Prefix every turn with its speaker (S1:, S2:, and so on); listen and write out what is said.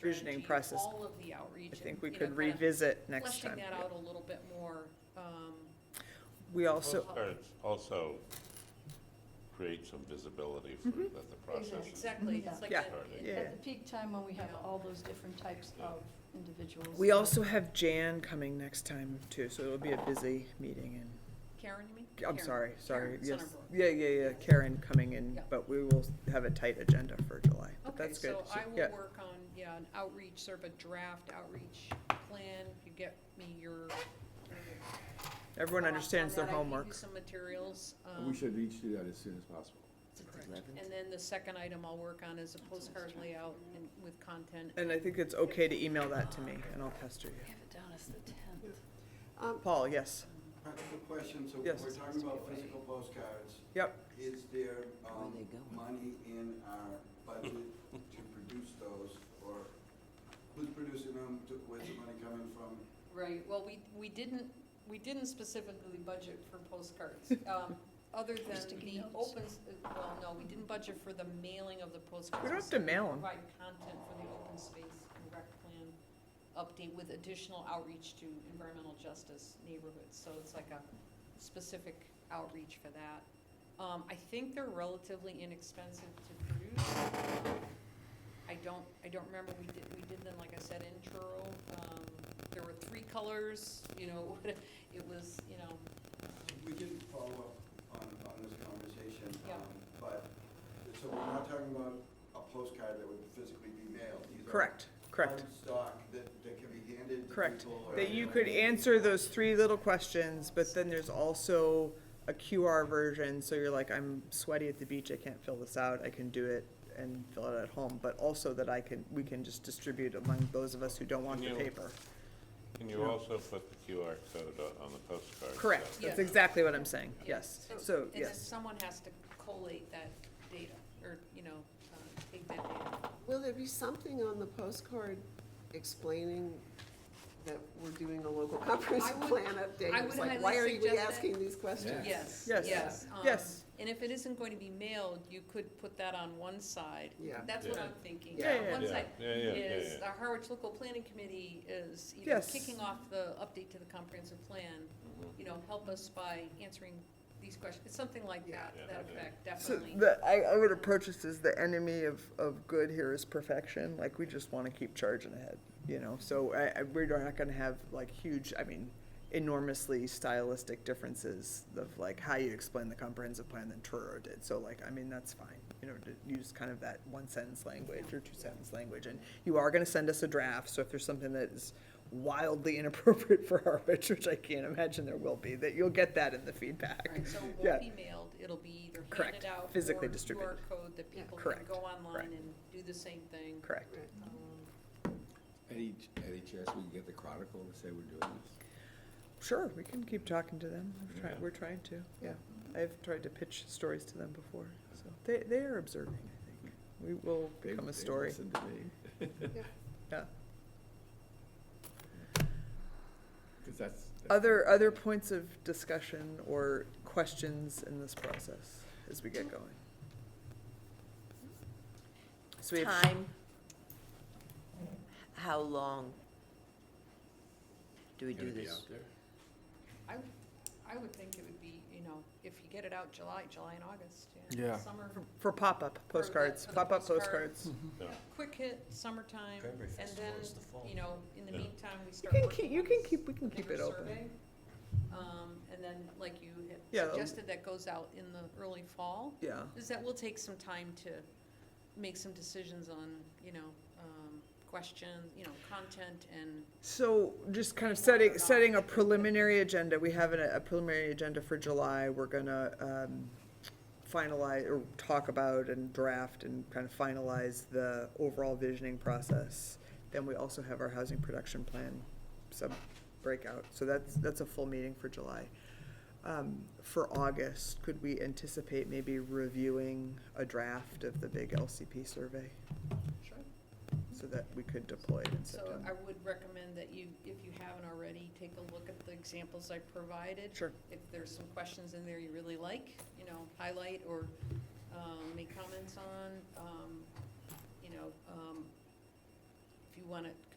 S1: Provisioning
S2: strategy,
S1: process.
S2: All of the outreach.
S1: I
S2: and,
S1: think we
S2: you know,
S1: could
S2: kind of
S1: revisit next
S2: Fleshing
S1: time.
S2: that out a little bit more, um,
S1: We also,
S3: Postcards also create some visibility for
S1: Mm-hmm.
S3: that the process is.
S2: exactly, it's like.
S1: Yeah.
S2: that-
S3: Starting.
S1: Yeah.
S4: At the peak time when we have all those different types of individuals.
S1: we also have Jan coming next time too, so it'll be a busy meeting and,
S2: Karen, you mean?
S1: I'm
S2: Karen.
S1: sorry, sorry,
S2: Karen
S1: yes.
S2: Sonnenberg.
S1: Yeah, yeah, yeah, Karen coming in,
S2: Yeah.
S1: but we will have a tight agenda for July, but
S2: Okay,
S1: that's good.
S2: so I
S1: Yeah.
S2: will work on, yeah, an outreach, sort of a draft outreach plan, you get me your.
S1: Everyone
S2: thoughts on
S1: understands their
S2: that. I gave you
S1: homework.
S2: Some materials,
S5: We
S2: um,
S5: should each do that as soon as possible.
S2: and then the second item I'll work on is a postcard layout and with content.
S1: And I think it's okay to email that to me and I'll pester
S4: We
S1: you.
S4: have it down as the tenth.
S1: Paul, yes,
S6: Practical question, so
S1: Yes.
S6: we're talking about physical postcards.
S1: yep,
S6: Is there, um, money in our budget to produce those, or who's producing them, To- where's the money coming from?
S2: Right, well, we, we didn't, we didn't specifically budget for postcards, um, other than the
S4: Sticky notes.
S2: open, s- uh, well, no, we didn't budget for the mailing of the postcards.
S1: We don't have to mail 'em.
S2: Provide content for the open space and rec plan update with additional outreach to environmental justice neighborhoods, so it's like a specific outreach for that. Um, I think they're relatively inexpensive to produce. Um, I don't, I don't remember, we did, we did them, like I said, in Truro. Um, there were three colors, you know, it was, you know,
S6: We can follow up on, on this conversation,
S2: Yeah.
S6: um, but, so we're not talking about a postcard that would physically be mailed, these are
S1: correct, correct.
S6: hard stock that, that can be handed to
S1: Correct.
S6: people. or-
S1: That you could answer those three little questions, but then there's also a QR version, so you're like, I'm sweaty at the beach, I can't fill this out, I can do it and fill it at home, but also that I can, we can just distribute among those of us who don't want the
S3: Yeah.
S1: paper.
S3: Can you also put the QR code o- on the postcard?
S1: Correct,
S3: so-
S1: that's exactly what I'm saying,
S2: Yeah.
S1: yes, so,
S2: And then
S1: yes.
S2: someone has to collate that data, or, you know, uh, take that data.
S7: Will there be something on the postcard explaining that we're doing a local comprehensive
S2: I would-
S7: plan update?
S2: I would
S7: It's like,
S2: highly
S7: why are
S2: suggest
S7: we
S2: that-
S7: asking these questions?
S2: Yes,
S1: Yes.
S2: yes. um,
S1: Yes.
S2: And if it isn't going to be mailed, you could put that on one side.
S7: Yeah.
S2: That's what
S3: Yeah.
S2: I'm thinking.
S7: Yeah.
S2: On One
S3: Yeah,
S2: side
S3: yeah, yeah, yeah,
S2: is,
S3: yeah.
S2: our Harwich Local Planning Committee is, you know,
S1: Yes.
S2: kicking off the update to the comprehensive plan.
S3: Mm-hmm.
S2: You know, help us by answering these questions, It's something like
S7: Yeah.
S2: that,
S3: Yeah,
S2: that
S3: yeah.
S2: effect,
S1: So
S2: definitely.
S1: the, I, I would approach this as the enemy of, of good here is perfection, like, we just wanna keep charging ahead, you know, so I, I, we're not gonna have like huge, I mean, enormously stylistic differences of like how you explain the comprehensive plan than Truro did, so like, I mean, that's fine. You know, to use kind of that one sentence language or two sentence language, and you are gonna send us a draft, so if there's something that is wildly inappropriate for Harwich, which I can't imagine there will be, that you'll get that in the feedback.
S2: Right, so it
S1: Yeah.
S2: won't be mailed, it'll be either
S1: Correct,
S2: handed out
S1: physically
S2: or QR
S1: distributed.
S2: code that people can
S1: Correct,
S2: go online
S1: correct.
S2: and do the same thing.
S1: Correct.
S7: Right.
S2: Um,
S5: At each, at each chance, we can get the Chronicle to say we're doing this.
S1: Sure, we can keep talking to them. We're trying,
S3: Yeah.
S1: we're trying to, yeah. I've tried to pitch stories to them before, so they, they are observing, I think. We will
S5: They-
S1: become a
S5: they
S1: story,
S5: Listen to me,
S1: yeah.
S5: because that's. that's-
S1: Other, other points of discussion or questions in this process as we get going? So we have-
S8: Time, how long do we do this?
S2: I, would- I would think it would be, you know, if you get it out July, July and August, yeah.
S5: Yeah.
S2: Summer,
S1: For pop-up postcards,
S2: for the
S1: pop-up
S2: postcard.
S1: postcards.
S3: Yeah.
S2: quick hit, summertime, and then, you know, in the
S3: Yeah.
S2: meantime, we
S1: You
S2: start
S1: can
S2: working
S1: keep, you
S2: on
S1: can
S2: this
S1: keep, we can keep
S2: bigger
S1: it open.
S2: survey. Um, and then, like you had
S1: Yeah, that'll-
S2: suggested, that goes out in the early fall,
S1: Yeah,
S2: is that we'll take some time to make some decisions on, you know, um, questions, you know, content and
S1: So just kind of setting, setting a preliminary agenda, we have a a preliminary agenda for July, we're gonna, um, finalize, or talk about and draft and kind of finalize the overall visioning process. Then we also have our housing production plan sub breakout, so that's, that's a full meeting for July. Um, for August, could we anticipate maybe reviewing a draft of the big LCP survey
S2: Sure.
S1: so that we could deploy it in
S2: So
S1: September?
S2: I would recommend that you, if you haven't already, take a look at the examples I provided.
S1: Sure.
S2: If there's some questions in there you really like, you know, highlight or um, make comments on, um, you know, um, you wanna